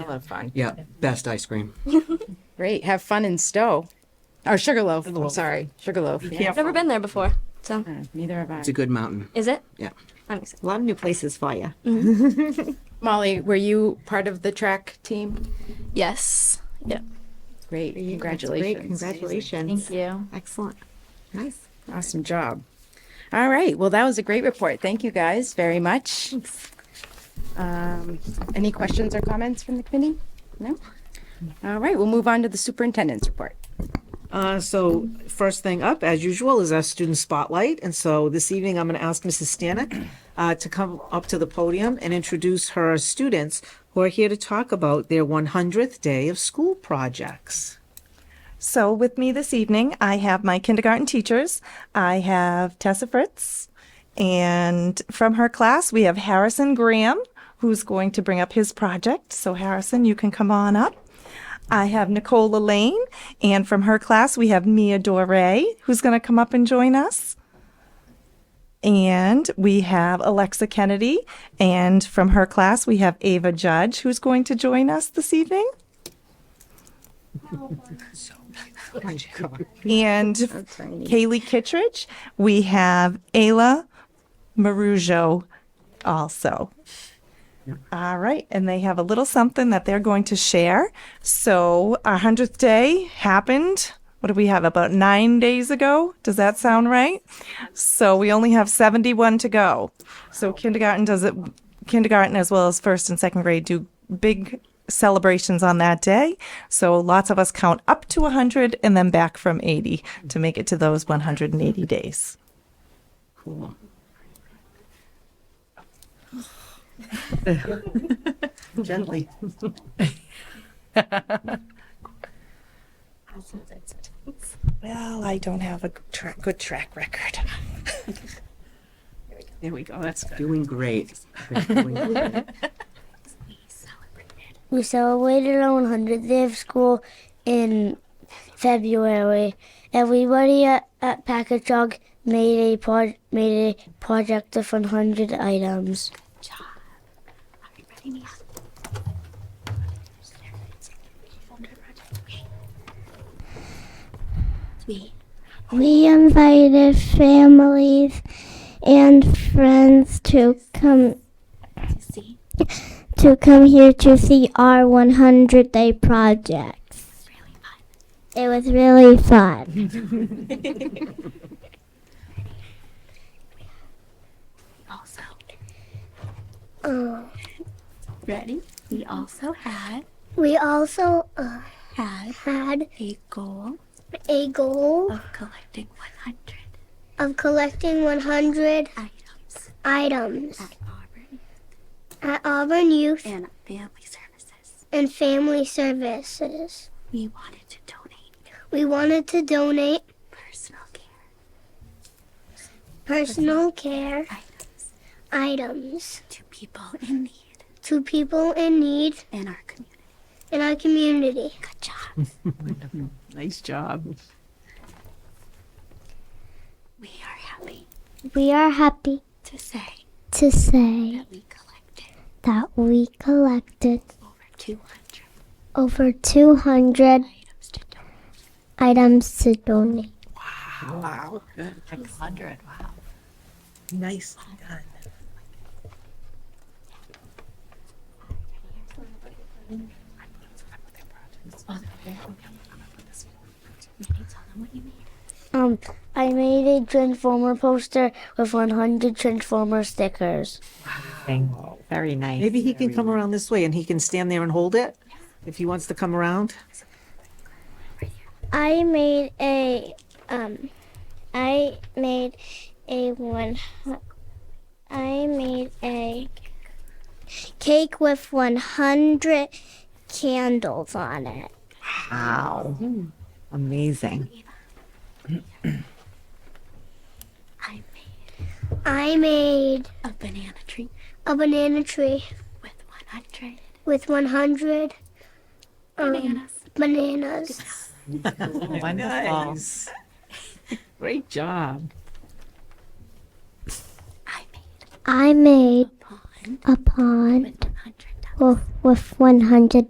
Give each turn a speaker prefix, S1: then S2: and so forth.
S1: a lot of fun.
S2: Yeah, best ice cream.
S3: Great. Have fun in Stowe. Or Sugarloaf. I'm sorry. Sugarloaf. Yeah.
S1: Careful.
S4: Never been there before, so
S3: Uh, Neither have I.
S2: It's a good mountain.
S4: is it?
S2: Yeah.
S4: I'm excited.
S5: A lot of new places for you.
S3: Molly, were you part of the track team?
S4: Yes. Yeah.
S3: Great.
S5: Great,
S3: Congratulations.
S5: congratulations.
S6: Thank you.
S5: Excellent. Nice.
S3: Awesome job. All right. Well, that was a great report. Thank you guys very much. Um, any questions or comments from the committee? No? All right. We'll move on to the superintendent's report.
S7: Uh, so first thing up, as usual, is our student spotlight. And so this evening, I'm going to ask Mrs. Stanek uh, to come up to the podium and introduce her students who are here to talk about their 100th day of school projects.
S8: So with me this evening, I have my kindergarten teachers. I have Tessa Fritz, and from her class, we have Harrison Graham, who's going to bring up his project. So Harrison, you can come on up. I have Nicola Lane, and from her class, we have Mia Dore, who's going to come up and join us. And we have Alexa Kennedy, and from her class, we have Ava Judge, who's going to join us this evening. and Kaylee Kittredge. We have Ayla Marujo also. All right, and they have a little something that they're going to share. So our hundredth day happened. What do we have? About nine days ago. Does that sound right? So we only have seventy-one to go. So kindergarten does it. Kindergarten as well as first and second grade do big celebrations on that day. So lots of us count up to hundred and then back from eighty to make it to those one hundred and eighty days.
S2: Cool.
S7: Gently.
S8: Well, I don't have a tra- good track record.
S1: There we go. That's good.
S2: Doing great. Doing great.
S9: We celebrated our 100th day of school in February. Everybody at, at Packer Jog made a pro- made a project of 100 items. We invited families and friends to come to come here to see our 100 day projects. It was really fun.
S6: Also.
S9: Uh,
S6: Ready? We also had
S9: We also uh,
S6: had
S9: had
S6: a goal
S9: a goal
S6: of collecting 100
S9: of collecting 100
S6: items
S9: items
S6: at Auburn
S9: at Auburn Youth
S6: and Family Services.
S9: and Family Services.
S6: We wanted to donate
S9: We wanted to donate
S6: personal care
S9: personal care
S6: items
S9: items
S6: to people in need
S9: to people in need
S6: in our community.
S9: in our community.
S6: Good job.
S1: Nice job.
S6: We are happy
S9: We are happy
S6: to say
S9: to say
S6: we collected
S9: that we collected
S6: over 200
S9: over 200
S6: items to donate.
S9: items to donate.
S7: Nice. done.
S6: Ready? Tell them what you need.
S9: Um, I made a Transformer poster with 100 Transformer stickers.
S5: Very nice.
S7: Maybe he can come around this way and he can stand there and hold it if he wants to come around.
S9: I made a um, I made a one. I made a cake with 100 candles on it.
S5: Wow. Amazing.
S6: I made
S9: I made
S6: a banana tree
S9: a banana tree
S6: with 100
S9: with 100 um,
S6: bananas.
S9: bananas.
S5: Wonderful.
S7: Um,
S1: Great job.
S6: I made
S9: I made
S6: a pond
S9: a pond
S6: with 100
S9: with, with 100